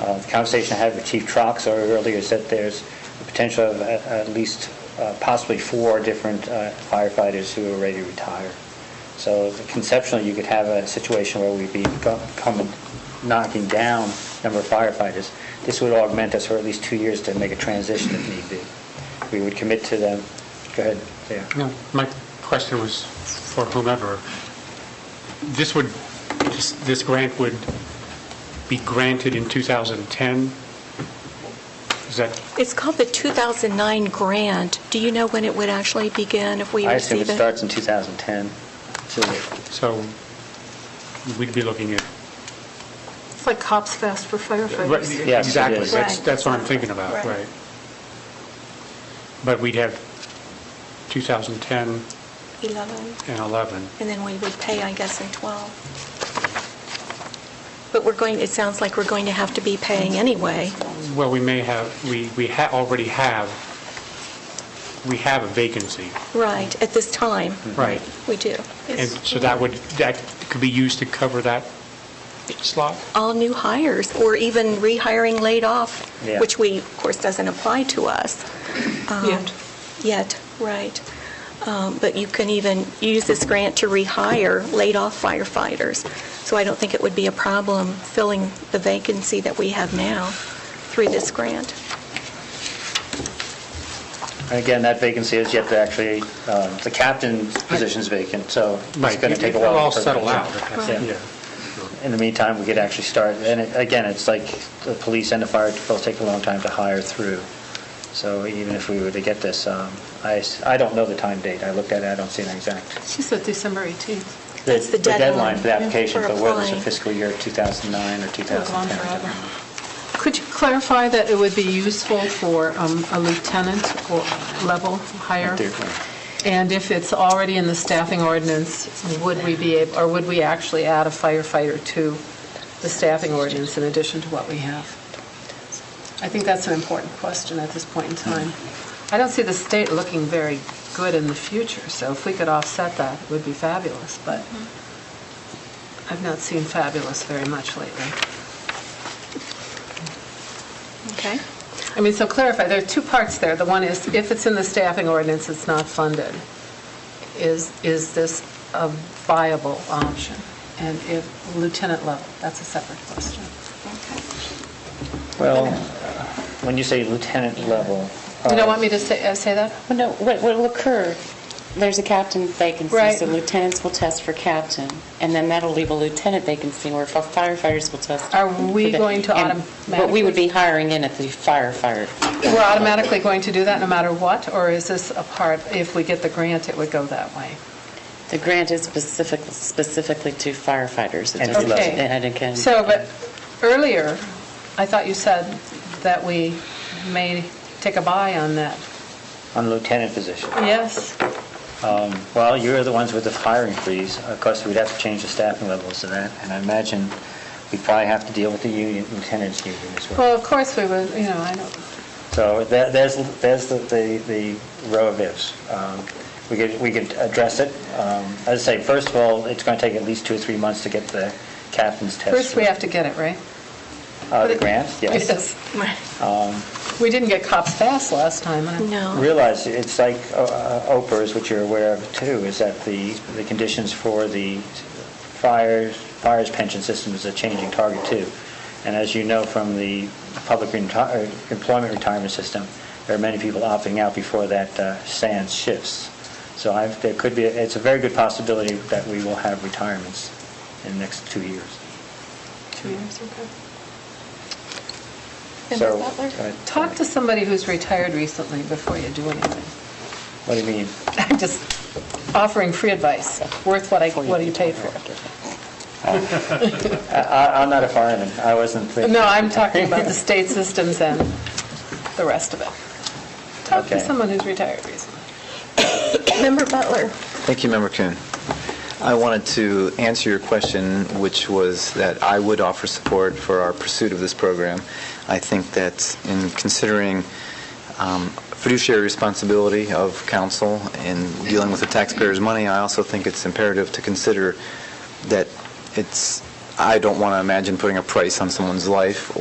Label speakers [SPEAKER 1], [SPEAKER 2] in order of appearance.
[SPEAKER 1] Uh, The conversation I had with Chief Trox earlier is that there's a potential of at at least uh, possibly four different uh, firefighters who are ready to retire. So conceptually, you could have a situation where we'd be go- coming, knocking down number of firefighters. This would augment us for at least two years to make a transition if need be. We would commit to them. Go ahead, yeah.
[SPEAKER 2] No, My question was for whomever. This would, this- this grant would be granted in 2010? Is that,
[SPEAKER 3] It's called the 2009 grant. Do you know when it would actually begin if we
[SPEAKER 1] I assume it
[SPEAKER 3] receive it?
[SPEAKER 1] starts in 2010. So
[SPEAKER 2] so we'd be looking at,
[SPEAKER 4] It's like Cops Fest for
[SPEAKER 2] right,
[SPEAKER 4] firefighters.
[SPEAKER 1] Yes, it
[SPEAKER 2] exactly,
[SPEAKER 1] is.
[SPEAKER 2] that's,
[SPEAKER 4] Right.
[SPEAKER 2] that's what I'm thinking about,
[SPEAKER 4] Right.
[SPEAKER 2] right. But we'd have 2010
[SPEAKER 3] 11,
[SPEAKER 2] and 11.
[SPEAKER 3] and then we would pay, I guess, in 12. But we're going, it sounds like we're going to have to be paying anyway.
[SPEAKER 2] Well, we may have, we, we ha- already have, we have a vacancy,
[SPEAKER 3] Right, at this time,
[SPEAKER 2] right?
[SPEAKER 3] we do.
[SPEAKER 2] And so that would, that could be used to cover that slot?
[SPEAKER 3] All new hires, or even rehiring laid off,
[SPEAKER 1] Yeah.
[SPEAKER 3] which we, of course, doesn't apply to us. um,
[SPEAKER 4] Yet.
[SPEAKER 3] Yet, right. Um, But you can even use this grant to rehire laid-off firefighters. So I don't think it would be a problem filling the vacancy that we have now through this grant.
[SPEAKER 1] Again, that vacancy is yet to actually, um, the captain's position's vacant, so it's
[SPEAKER 2] Right,
[SPEAKER 1] going to take a while.
[SPEAKER 2] It'll all
[SPEAKER 1] for-
[SPEAKER 2] settle out.
[SPEAKER 1] Yeah.
[SPEAKER 2] Yeah.
[SPEAKER 1] In the meantime, we could actually start, and it- again, it's like the police and the fire both take a long time to hire through. So even if we were to get this, um, I s- I don't know the time date. I looked at it, I don't see an exact.
[SPEAKER 4] She said December 18th.
[SPEAKER 3] That's the deadline
[SPEAKER 1] for the application,
[SPEAKER 3] for
[SPEAKER 1] but whether it's a
[SPEAKER 3] applying.
[SPEAKER 1] fiscal year 2009 or
[SPEAKER 4] It'll go on
[SPEAKER 1] 2010. I don't know.
[SPEAKER 4] forever. Could you clarify that it would be useful for um, a lieutenant or level higher?
[SPEAKER 1] Dear.
[SPEAKER 4] And if it's already in the staffing ordinance, would we be, ab- or would we actually add a firefighter to the staffing ordinance in addition to what we have? I think that's an important question at this point in time. I don't see the state looking very good in the future, so if we could offset that, it would be fabulous, but I've not seen fabulous very much lately.
[SPEAKER 3] Okay?
[SPEAKER 4] I mean, so clarify, there are two parts there. The one is, if it's in the staffing ordinance, it's not funded. Is, is this a viable option? And if lieutenant level, that's a separate question.
[SPEAKER 1] Well, when you say lieutenant level.
[SPEAKER 4] You
[SPEAKER 1] uh,
[SPEAKER 4] don't want me to say, uh, say that?
[SPEAKER 5] Well, no, what will occur, there's a captain vacancy,
[SPEAKER 4] Right.
[SPEAKER 5] so lieutenants will test for captain, and then that'll leave a lieutenant vacancy where firefighters will test.
[SPEAKER 4] Are we
[SPEAKER 5] for the-
[SPEAKER 4] going to
[SPEAKER 5] and- But we
[SPEAKER 4] automatically-
[SPEAKER 5] would be hiring in at the firefighter.
[SPEAKER 4] We're automatically going to do that no matter what, or is this a part, if we get the grant, it would go that way?
[SPEAKER 5] The grant is specific, specifically to firefighters. It
[SPEAKER 1] Entry
[SPEAKER 5] doesn't-
[SPEAKER 1] level.
[SPEAKER 4] Okay.
[SPEAKER 5] and it can-
[SPEAKER 4] So, but earlier, I thought you said that we may take a buy on that.
[SPEAKER 1] uh, On lieutenant position.
[SPEAKER 4] Yes?
[SPEAKER 1] Well, you're the ones with the hiring freeze. Of course, we'd have to change the staffing levels to that, and I imagine we probably have to deal with the union, lieutenant's union as well.
[SPEAKER 4] Well, of course we would, you know, I don't.
[SPEAKER 1] So there- there's, there's the, the the row of ifs. Um, We could, we could address it. Um, As I say, first of all, it's going to take at least two or three months to get the captain's test.
[SPEAKER 4] First, we have to get it, right?
[SPEAKER 1] Uh, The grant, yes.
[SPEAKER 4] Yes. We didn't get cops fast last time, and I-
[SPEAKER 3] No.
[SPEAKER 1] Realize, it's like uh, uh, OPERS, which you're aware of too, is that the, the conditions for the fires, fires pension system is a changing target too. And as you know from the public reti- uh, employment retirement system, there are many people opting out before that uh, sand shifts. So I, there could be, it's a very good possibility that we will have retirements in the next two years.
[SPEAKER 4] two years, okay.
[SPEAKER 1] So, uh,
[SPEAKER 5] Member Butler?
[SPEAKER 1] go ahead.
[SPEAKER 4] Talk to somebody who's retired recently before you do anything.
[SPEAKER 1] What do you mean?
[SPEAKER 4] I'm just offering free advice, worth what I, what you paid for.
[SPEAKER 1] I- I, I'm not a fireman. I wasn't thinking.
[SPEAKER 4] No, I'm talking about the state systems and the rest of it. Talk to
[SPEAKER 1] Okay.
[SPEAKER 4] someone who's retired recently.
[SPEAKER 3] Member Butler?
[SPEAKER 6] Thank you, Member Kuhn. I wanted to answer your question, which was that I would offer support for our pursuit of this program. I think that in considering um, fiduciary responsibility of council and dealing with the taxpayers' money, I also think it's imperative to consider that it's, I don't want to imagine putting a price on someone's life